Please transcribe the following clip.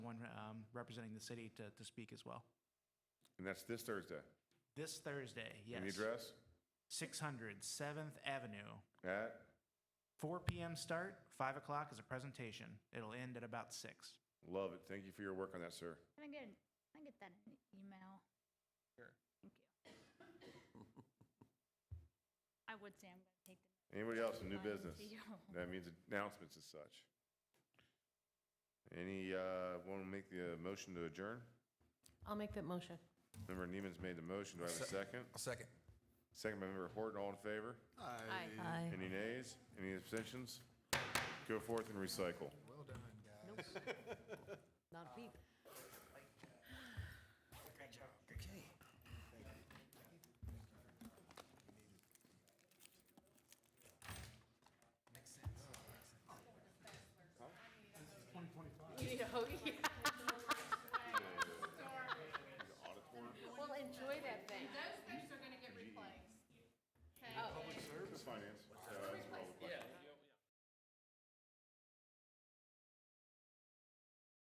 um, representing the city to, to speak as well. And that's this Thursday. This Thursday, yes. And the address? 600 7th Avenue. At? 4 p.m. start, 5 o'clock is a presentation. It'll end at about 6. Love it. Thank you for your work on that, sir. Can I get, an- can I get that in an email? Sure. Thank you. I would say I'm gonna take the. Anybody else in new business? Mine too. That means announcements as such. Any, uh, want to make the uh, motion to adjourn? I'll make that motion. Member Neiman's made the motion. Do I have a second? I'll second. Second by Member Horton, all in favor? Aye. Aye. Any nays? Any abstentions? Go forth and recycle. Well done, guys.